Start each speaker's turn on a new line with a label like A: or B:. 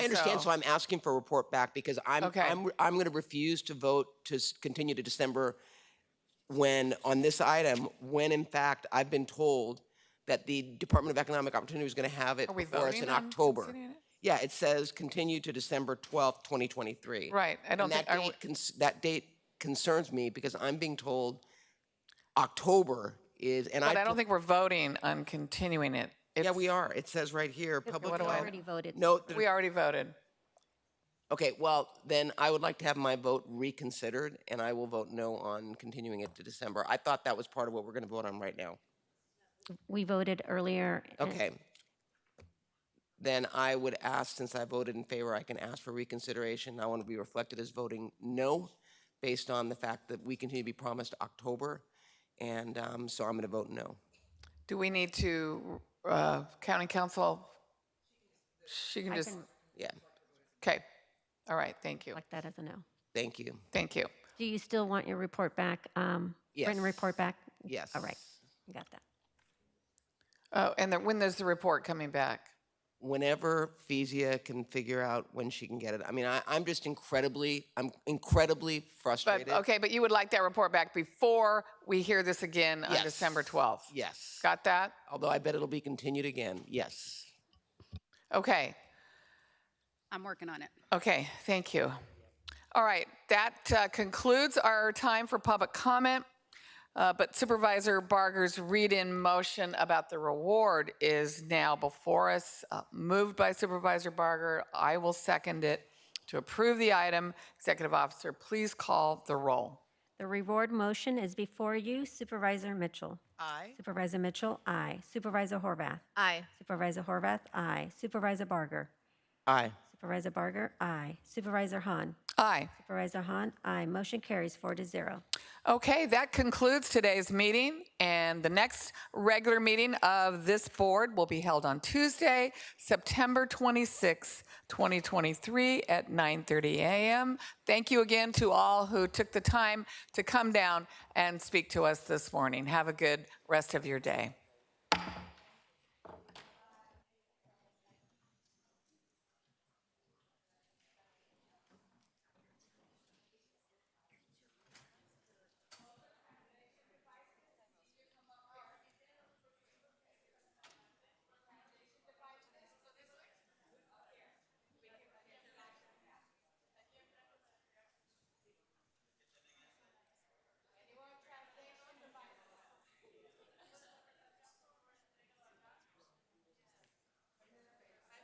A: understand,
B: so.
A: so I'm asking for a report back because I'm,
B: Okay.
A: I'm, I'm going to refuse to vote to s- continue to December when, on this item, when in fact I've been told that the Department of Economic Opportunity is going to have it
B: Are we
A: before us
B: voting
A: in
B: on
A: October.
B: continuing it?
A: Yeah, it says continue to December 12th, 2023.
B: Right, I don't
A: And
B: think,
A: that
B: I w-
A: date, cons- that date concerns me because I'm being told October is, and I.
B: but I
A: to-
B: don't think we're voting on continuing it.
A: Yeah,
B: It's-
A: we are. It says right here, public.
B: what do I-
A: health-
C: Already voted.
A: Note that
B: We already voted.
A: Okay, well, then I would like to have my vote reconsidered, and I will vote no on continuing it to December. I thought that was part of what we're going to vote on right now.
C: We voted earlier. uh,
A: Okay. Then I would ask, since I voted in favor, I can ask for reconsideration. I want to be reflected as voting no, based on the fact that we continue to be promised October, and um, so I'm going to vote no.
B: Do we need to, uh, county council? She can just,
A: Yeah,
B: okay, all right, thank you,
C: Like that as a no.
A: thank you.
B: thank you.
C: Do you still want your report back? um, Written
A: Yes.
C: report back?
A: Yes.
C: All right, got that.
B: Oh, and then when there's the report coming back?
A: whenever Fezia can figure out when she can get it. I mean, I, I'm just incredibly, I'm incredibly frustrated.
B: But, okay, but you would like that report back before we hear this again on
A: Yes.
B: December 12th?
A: Yes.
B: Got that?
A: Although I bet it'll be continued again. Yes.
B: Okay,
D: I'm working on it.
B: okay, thank you. All right, that uh, concludes our time for public comment. Uh, But Supervisor Barger's read-in motion about the reward is now before us. Uh, Moved by Supervisor Barger, I will second it to approve the item. Executive Officer, please call the roll.
C: The reward motion is before you. Supervisor Mitchell. Aye. Supervisor Mitchell, aye. Supervisor Horvath.
E: Aye.
C: Supervisor Horvath, aye. Supervisor Barger.
A: Aye.
C: Supervisor Barger, aye. Supervisor Hahn.
B: Aye.
C: Supervisor Hahn, aye. Motion carries four to zero.
B: Okay, that concludes today's meeting, and the next regular meeting of this board will be held on Tuesday, September 26, 2023, at 9:30 a.m. Thank you again to all who took the time to come down and speak to us this morning. Have a good rest of your day.